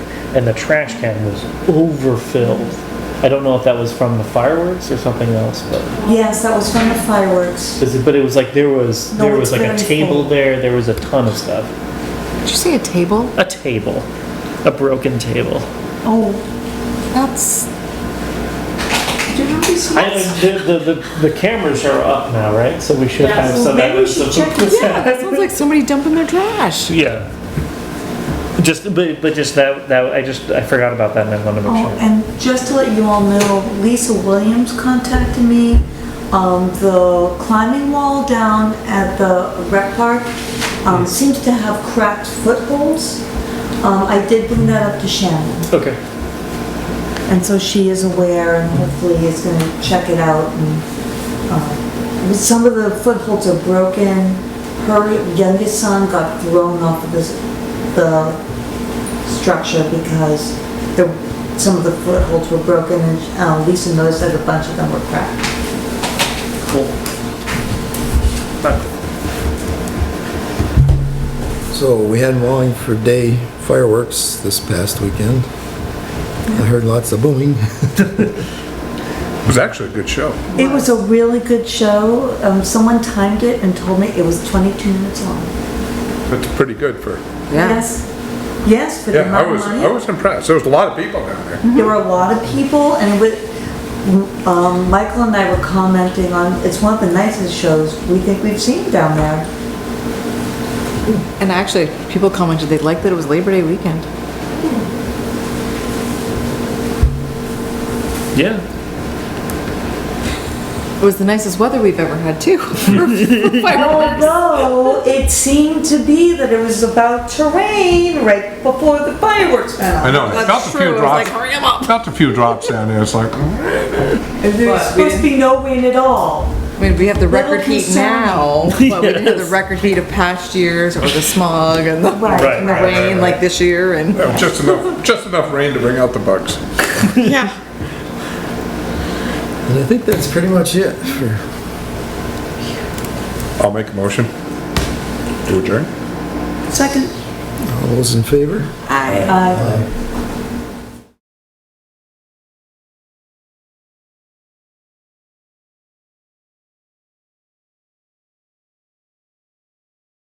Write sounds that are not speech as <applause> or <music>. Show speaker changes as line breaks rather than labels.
and the trash can was overfilled. I don't know if that was from the fireworks or something else, but
Yes, that was from the fireworks.
but it was like there was
No,
there
it's
was like a
very
table
full.
there. There was a ton of stuff.
Did you say a table?
A table, a broken table.
Oh,
That's,
do you know these
I,
ones?
the, the, the, the cameras are up now, right? So we should
Yeah,
have
so
some
maybe we
evidence
should
of
check this
yeah, that sounds like somebody dumping their trash.
Yeah. Just, but, but just that, that, I just, I forgot about that and I wanted to make
Oh,
sure.
and just to let you all know, Lisa Williams contacted me. Um, the climbing wall down at the rec park, um, seems to have cracked footholds. Um, I did bring that up to Shannon,
Okay,
and so she is aware and hopefully is gonna check it out and, um, some of the footholds are broken. Her youngest son got thrown off of this, the structure because the, some of the footholds were broken and uh, Lisa noticed that a bunch of them were cracked.
cool.
So we had Wallingford Day fireworks this past weekend. I heard lots of booming.
It was actually a good show.
It was a really good show. Um, someone timed it and told me it was 22 minutes long.
That's pretty good for,
Yeah.
Yes, yes, for the
yeah, I
amount of
was,
money.
I was impressed. There was a lot of people down there.
There were a lot of people and with, um, Michael and I were commenting on, it's one of the nicest shows we think we've seen down there.
And actually, people commented they liked that it was Labor Day weekend.
Yeah,
It was the nicest weather we've ever had
<laughs>
too. <laughs> for fireworks.
Although it seemed to be that it was about to rain right before the fireworks went off.
I know, I felt
That's
a
true,
few
it was like,
drops,
hurry 'em up.
felt a few drops down there. It's <laughs> like, mm.
There's
But we
supposed to be no rain at all.
I mean, we have the
Little
record heat
concern.
now, but we didn't have the
Yes.
record heat of past years or the smog and the
Right,
Right,
and the
right,
rain like this year and.
There was just enough, just enough rain to bring out the bugs.
Yeah.
And I think that's pretty much it for
I'll make a motion to adjourn.
Second.
all those in favor.
Aye.